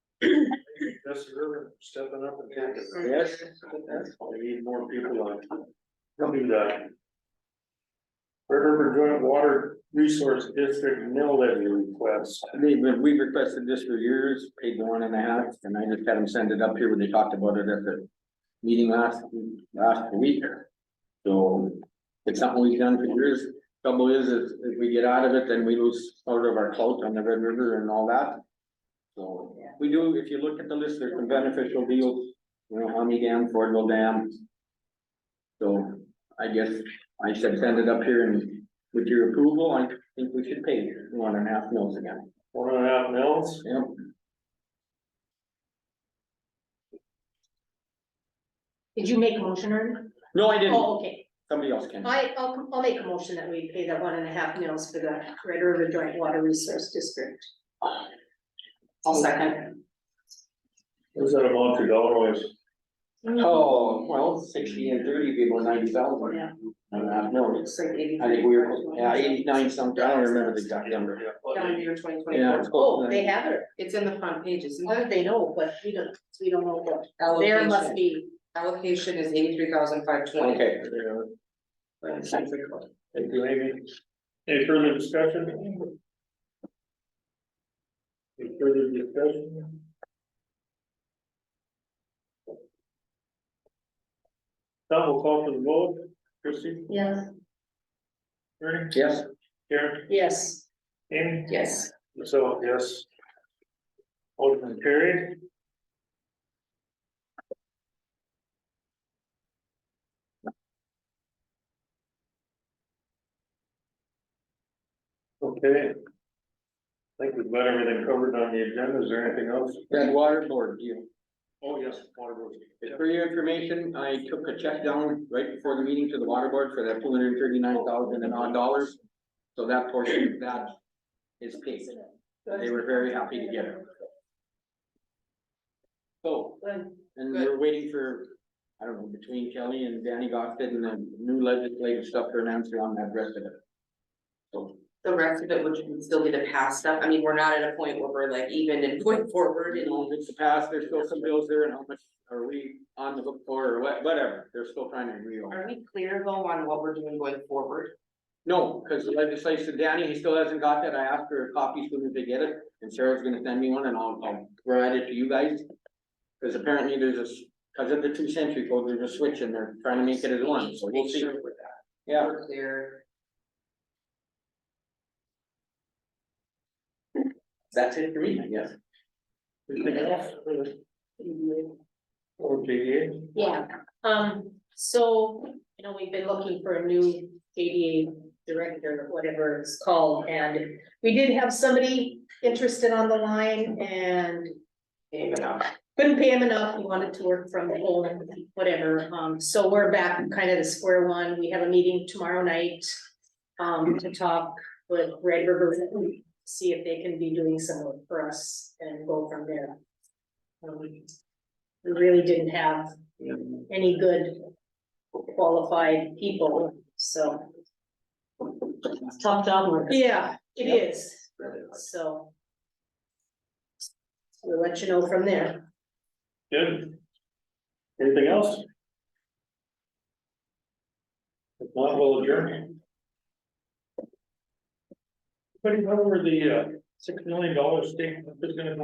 Jesse River stepping up and taking. it. Yes. We need more people like. Tell me that. Red River Joint Water Resource District mill levy request. They, we requested this for years, paid the one and a half, and I just had them send it up here when they talked about it at the meeting last, last week. So it's something we've done for years. Trouble is, if, if we get out of it, then we lose sort of our clout on the Red River and all that. So we do, if you look at the list, there's some beneficial deals, you know, Hummy Dam, Fordville Dam. So I guess I said send it up here and with your approval, I think we should pay one and a half mils again. One and a half mills. Yeah, Did you make a motion or? no, I didn't, Oh, okay. somebody else can. I, I'll, I'll make a motion that we pay the one and a half mils for the Red River Joint Water Resource District. I'll second. What's that amount to dollars? Mm. Oh, well, sixty and thirty people, ninety thousand. Yeah. no, Looks like eighty. I think we were, yeah, eighty-nine something, I don't remember the exact number. Down year twenty Yeah, it's Oh, close. they have it. It's in the front page, isn't How it? did they know? But we don't, we don't know what. There must Allocation, be. allocation is eighty-three thousand five twenty. Okay, Thank you, Amy. Any further discussion? Any further discussion? Now we'll call for the vote. Christie, Yes. Ernie, yes, Karen, Yes. Amy, Yes. myself, yes. Motion carried. Okay. I think we've got everything covered on the agenda. Is there anything else? that water board deal. Oh, yes, water board. For your information, I took a check down right before the meeting to the water board for that two hundred and thirty-nine thousand and odd dollars. So that portion, of that is paid. They were very happy to get it. So, and we're waiting for, I don't know, between Kelly and Danny Goffin and the new legislative stuff for an answer on that rest of it. So, The rest of it would would still be the past stuff, I mean, we're not at a point where we're like even and going forward you and know, it's the past, there's still some bills there and how much are we on the hook for or what, whatever, they're still trying to agree on. Are we clear though on what we're doing going forward? No, because the legislation, Danny, he still hasn't got that, I asked her a copy as soon as they get it, and Sarah's gonna send me one and I'll, I'll provide it to you guys. Because apparently there's a, because of the two century code, there's a switch and they're trying to make it as one, so we'll Make see, sure we're- yeah. We're clear. That's it for me, I guess. Or JDA? Yeah, um, so, you know, we've been looking for a new ADA director, whatever it's called, and we did have somebody interested on the line and Even up. couldn't pay him enough, he wanted to work from home, whatever, um, so we're back kind of to square one, we have a meeting tomorrow night. Um, to talk with Red River, see if they can be doing some work for us and go from there. Um, We really didn't have any good qualified people, so. tough job market. Yeah, it is, so. We'll let you know from there. Good. Anything else? If not, we'll adjourn. Anybody know where the uh, six million dollar state is gonna go?